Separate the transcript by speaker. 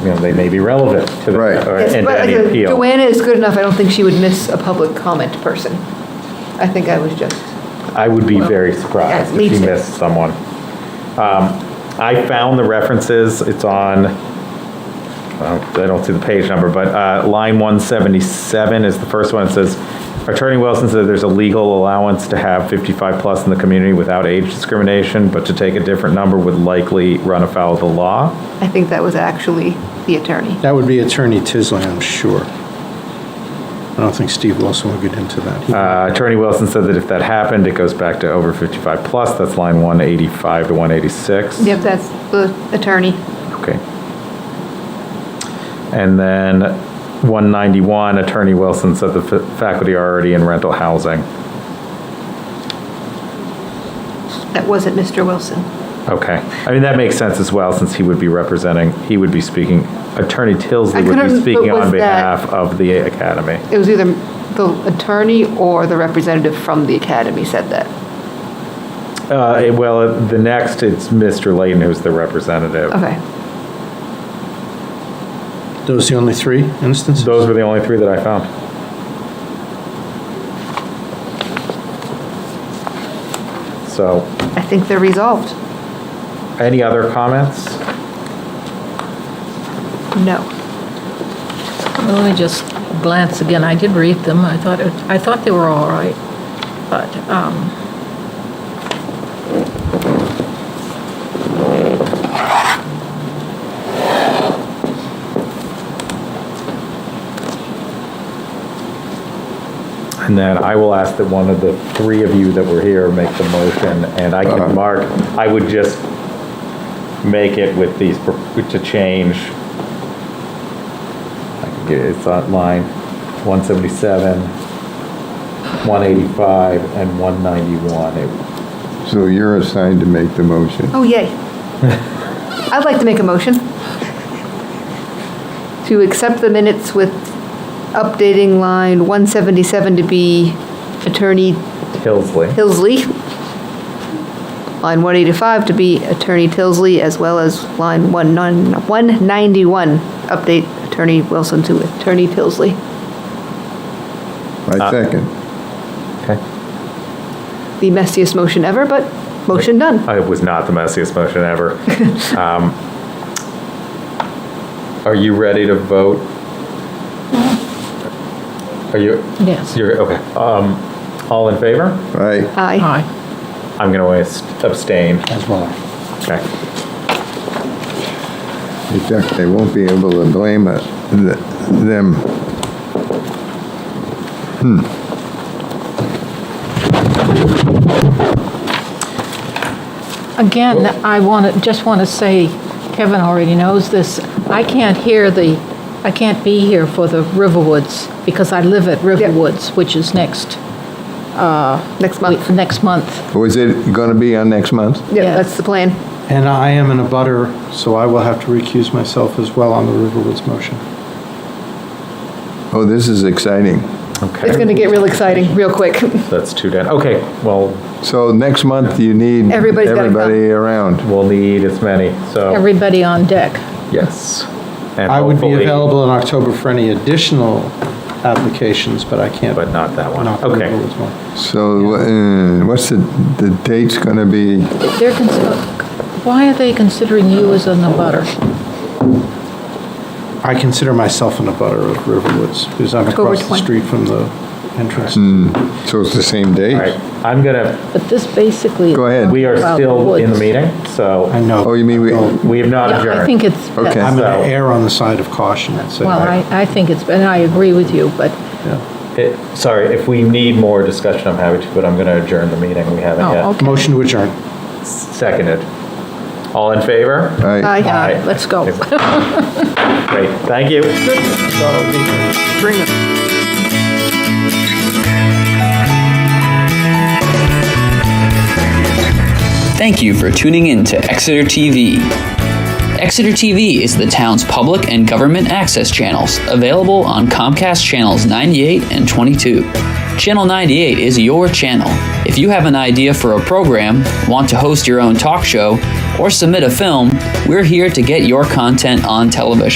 Speaker 1: you know, they may be relevant to the,
Speaker 2: Right.
Speaker 1: or-
Speaker 3: Yes,
Speaker 1: and
Speaker 3: but,
Speaker 1: to any
Speaker 3: uh,
Speaker 1: appeal.
Speaker 3: Joanna is good enough, I don't think she would miss a public comment person. I think I was just,
Speaker 1: I would be very surprised
Speaker 3: Yeah, me
Speaker 1: if you
Speaker 3: too.
Speaker 1: missed someone. Um, I found the references, it's on, I don't- I don't see the page number, but uh, line 177 is the first one. It says, "Attorney Wilson said there's a legal allowance to have 55-plus in the community without age discrimination, but to take a different number would likely run afoul of the law."
Speaker 3: I think that was actually the attorney.
Speaker 4: That would be Attorney Tisley, I'm sure. I don't think Steve Wilson would get into that. He-
Speaker 1: Uh, Attorney Wilson said that if that happened, it goes back to over 55 plus. That's line 185 to 186.
Speaker 3: Yep, that's the attorney.
Speaker 1: Okay. And then 191, Attorney Wilson said the fa- faculty are already in rental housing.
Speaker 3: That wasn't Mr. Wilson.
Speaker 1: Okay. I mean, that makes sense as well, since he would be representing, he would be speaking, Attorney
Speaker 3: I
Speaker 1: Tilsley would
Speaker 3: couldn't-
Speaker 1: be
Speaker 3: but
Speaker 1: speaking
Speaker 3: was
Speaker 1: on
Speaker 3: that-
Speaker 1: behalf of the academy.
Speaker 3: It was either the attorney or the representative from the academy said that.
Speaker 1: Uh, it- Well, the next, it's Mr. Layton, who's the representative.
Speaker 3: Okay.
Speaker 1: Uh,
Speaker 4: Those the only three instances?
Speaker 1: Those were the only three that I found. So,
Speaker 3: I think they're resolved.
Speaker 1: any other comments?
Speaker 3: No.
Speaker 5: Let me just glance again. I did read them. I thought, it- I thought they were all right, but, um,
Speaker 1: And then I will ask that one of the three of you that were here make the motion, and I
Speaker 3: Uh-huh.
Speaker 1: can mark, I would just make it with these, pro- to change. I can get, it's on line 177, 185, and 191. It-
Speaker 2: So you're assigned to make the motion.
Speaker 3: Oh, yay. I'd like to make a motion to accept the minutes with updating line 177 to be Attorney
Speaker 1: Hillsley.
Speaker 3: Tilsley, line 185 to be Attorney Tilsley, as well as line 19 191, update Attorney Wilson to Attorney Tilsley.
Speaker 2: I second.
Speaker 1: Okay.
Speaker 3: The messiest motion ever, but motion done.
Speaker 1: It was not the messiest motion ever. Um, Are you ready to vote? Are you?
Speaker 5: yes.
Speaker 1: You're, okay. Um, All in favor?
Speaker 2: Aye.
Speaker 3: Aye.
Speaker 5: Aye.
Speaker 1: I'm going to abstain.
Speaker 4: As well.
Speaker 1: Okay.
Speaker 2: In fact, they won't be able to blame us, th- them.
Speaker 5: Again, I want to, just want to say, Kevin already knows this, I can't hear the, I can't be here for the Riverwoods because I live at Riverwoods, which is next,
Speaker 3: Next
Speaker 5: week-
Speaker 3: month.
Speaker 5: next month.
Speaker 2: Was Oh, it going to be on next month?
Speaker 3: Yeah,
Speaker 5: Yeah.
Speaker 3: that's the plan.
Speaker 4: And I am in a butter, so I will have to recuse myself as well on the Riverwoods motion.
Speaker 2: Oh, this is exciting.
Speaker 3: It's going
Speaker 1: Okay.
Speaker 3: to get real exciting, real quick.
Speaker 1: That's too dead. Okay, well,
Speaker 2: So next month, you need
Speaker 3: Everybody's gotta come.
Speaker 2: everybody around.
Speaker 1: we'll need as many,
Speaker 2: Oh.
Speaker 1: so,
Speaker 5: Everybody on deck.
Speaker 1: yes. And
Speaker 4: I would be
Speaker 1: hopefully-
Speaker 4: available in October for any additional applications, but I can't.
Speaker 1: But not that one.
Speaker 4: not the
Speaker 1: Okay.
Speaker 4: Riverwoods one.
Speaker 2: So uh, what's the, the date's going to be?
Speaker 5: They're, consi- why are they considering you as an abutter?
Speaker 4: I consider myself in a butter of Riverwoods because I'm
Speaker 3: October
Speaker 4: across the
Speaker 3: 20.
Speaker 4: street from the entrance.
Speaker 1: Hmm.
Speaker 2: So it's the same date?
Speaker 1: All right, I'm going to,
Speaker 5: But this basically.
Speaker 2: Go ahead.
Speaker 1: we are
Speaker 5: About the
Speaker 1: still in the
Speaker 5: woods.
Speaker 1: meeting, so
Speaker 4: I know.
Speaker 2: Oh, you mean we-
Speaker 4: I'm
Speaker 1: we have not adjourned.
Speaker 5: Yeah, I think it's.
Speaker 2: Okay.
Speaker 5: best.
Speaker 4: going to
Speaker 1: So-
Speaker 4: err on the side of caution, I'd say.
Speaker 5: Well, I, I think it's, and I agree with you, but
Speaker 4: Yeah.
Speaker 1: It- Sorry, if we need more discussion, I'm happy to, but I'm going to adjourn the meeting. We haven't
Speaker 5: Oh,
Speaker 1: yet.
Speaker 5: okay.
Speaker 4: Motion to adjourn.
Speaker 1: Seconded. All in favor?
Speaker 2: Aye.
Speaker 3: Aye.
Speaker 1: Aye.
Speaker 5: let's go.
Speaker 1: Great, thank you.
Speaker 6: Thank you for tuning in to Exeter TV. Exeter TV is the town's public and government access channels, available on Comcast channels 98 and 22. Channel 98 is your channel. If you have an idea for a program, want to host your own talk show, or submit a film, we're here to get your content on television.